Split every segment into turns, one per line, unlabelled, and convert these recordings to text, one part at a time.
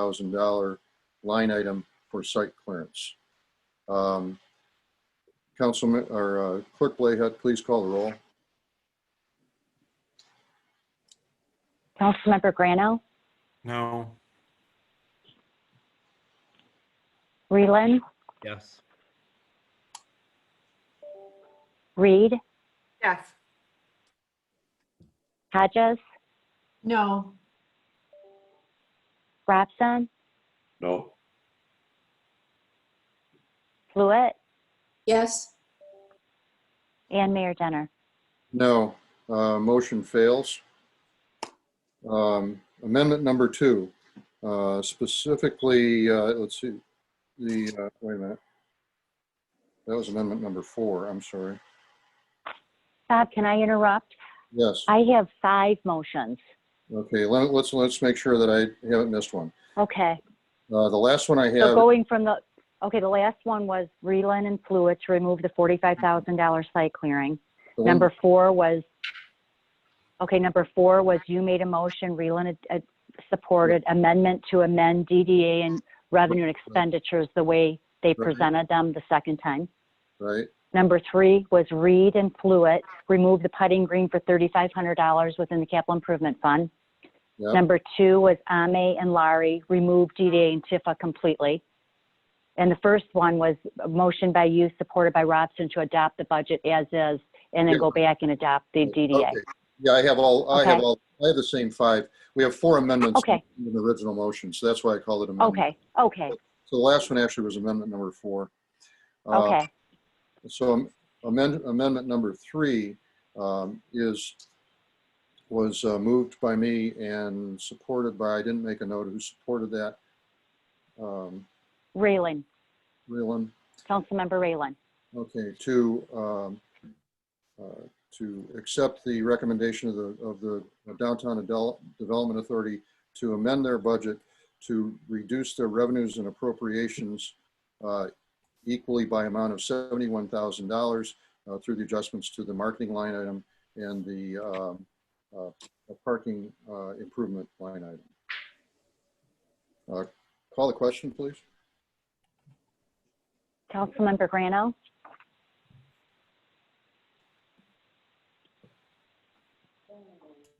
$5,000 line item for site clearance. Um, Councilman, or uh, Clerk Blayhead, please call the roll.
Councilmember Grano,
No.
Reland,
Yes.
Reed,
Yes.
Hodges,
No.
Robson,
No.
Fluid,
Yes.
and Mayor Denner.
No, uh, motion fails. Um, Amendment number two, uh, specifically, uh, let's see, the, uh, wait a minute. That was amendment number four, I'm sorry.
Bob, can I interrupt?
Yes,
I have five motions.
okay, let- let's, let's make sure that I haven't missed one.
Okay,
Uh, The last one I
so
have,
going from the, okay, the last one was Reland and Fluid to remove the $45,000 site clearing.
the one-
Number four was, okay, number four was you made a motion, Reland uh, supported amendment to amend DDA and revenue and expenditures the way they
Right.
presented them the second time.
right,
Number three was Reed and Fluid, remove the putting green for $3,500 within the capital improvement fund.
Yep.
Number two was Ame and Larry, remove DDA and Tifa completely. And the first one was a motion by you, supported by Robson, to adopt the budget as is, and then go back and adopt the DDA.
okay. Yeah, I have all, I have
Okay.
all, I have the same five. We have four amendments
Okay.
in the original motion, so that's why I called it amendment.
Okay, okay,
So the last one actually was amendment number four. Uh,
okay.
So amend- amendment number three um, is, was uh, moved by me and supported by, I didn't make a note of who supported that. Um,
Raylan,
Reelon,
Councilmember Raylan.
okay, to, um, uh, to accept the recommendation of the, of the Downtown Adel- Development Authority to amend their budget to reduce their revenues and appropriations uh, equally by amount of seventy-one thousand dollars uh, through the adjustments to the marketing line item and the um, uh, parking uh, improvement line item. Uh, Call the question, please.
Councilmember Grano,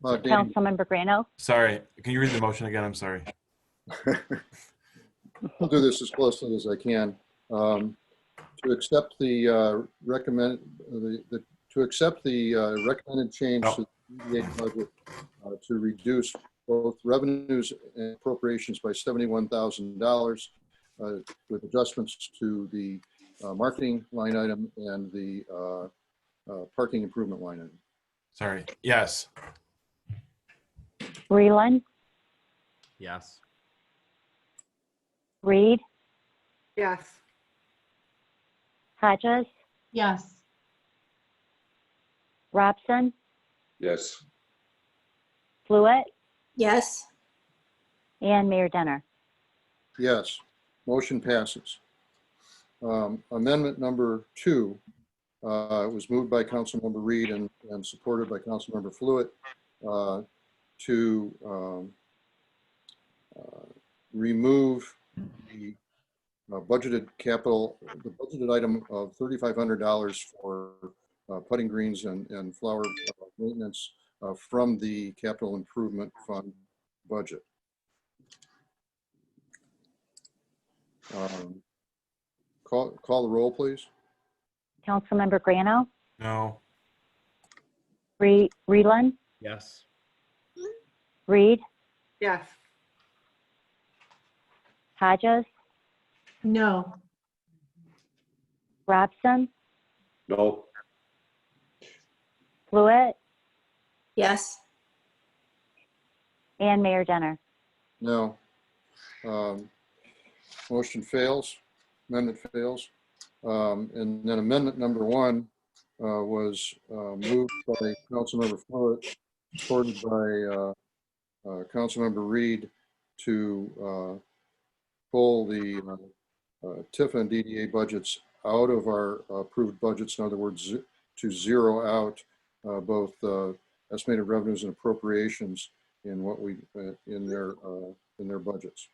Uh, Dan,
Councilmember Grano,
Sorry. Can you read the motion again? I'm sorry.
I'll do this as closely as I can. Um, To accept the uh, recommend, uh, the, the- to accept the uh, recommended change to the DDA budget uh, to reduce both revenues and appropriations by $71,000 uh, with adjustments to the uh, marketing line item and the uh, uh, parking improvement line item.
Sorry. Yes.
Raylan,
Yes.
Reed,
Yes.
Hodges,
Yes.
Robson,
Yes.
Fluid,
Yes.
and Mayor Denner.
Yes, motion passes. Um, Amendment number two uh, was moved by Councilmember Reed and, and supported by Councilmember Fluid uh, to um, uh, remove the uh, budgeted capital, the budgeted item of $3,500 for uh, putting greens and, and flower maintenance uh, from the capital improvement fund budget. Um, Call, call the roll, please.
Councilmember Grano,
No.
Re- Reland,
Yes.
Reed,
Yes.
Hodges,
No.
Robson,
No.
Fluid,
Yes.
and Mayor Denner.
No. Um, Motion fails, amendment fails. Um, And then amendment number one uh, was uh, moved by Councilmember Follett, supported by uh, uh, Councilmember Reed to uh, pull the uh, uh, TIF and DDA budgets out of our approved budgets. In other words, ze- to zero out uh, both uh, estimated revenues and appropriations in what we, uh, in their uh, in their budgets.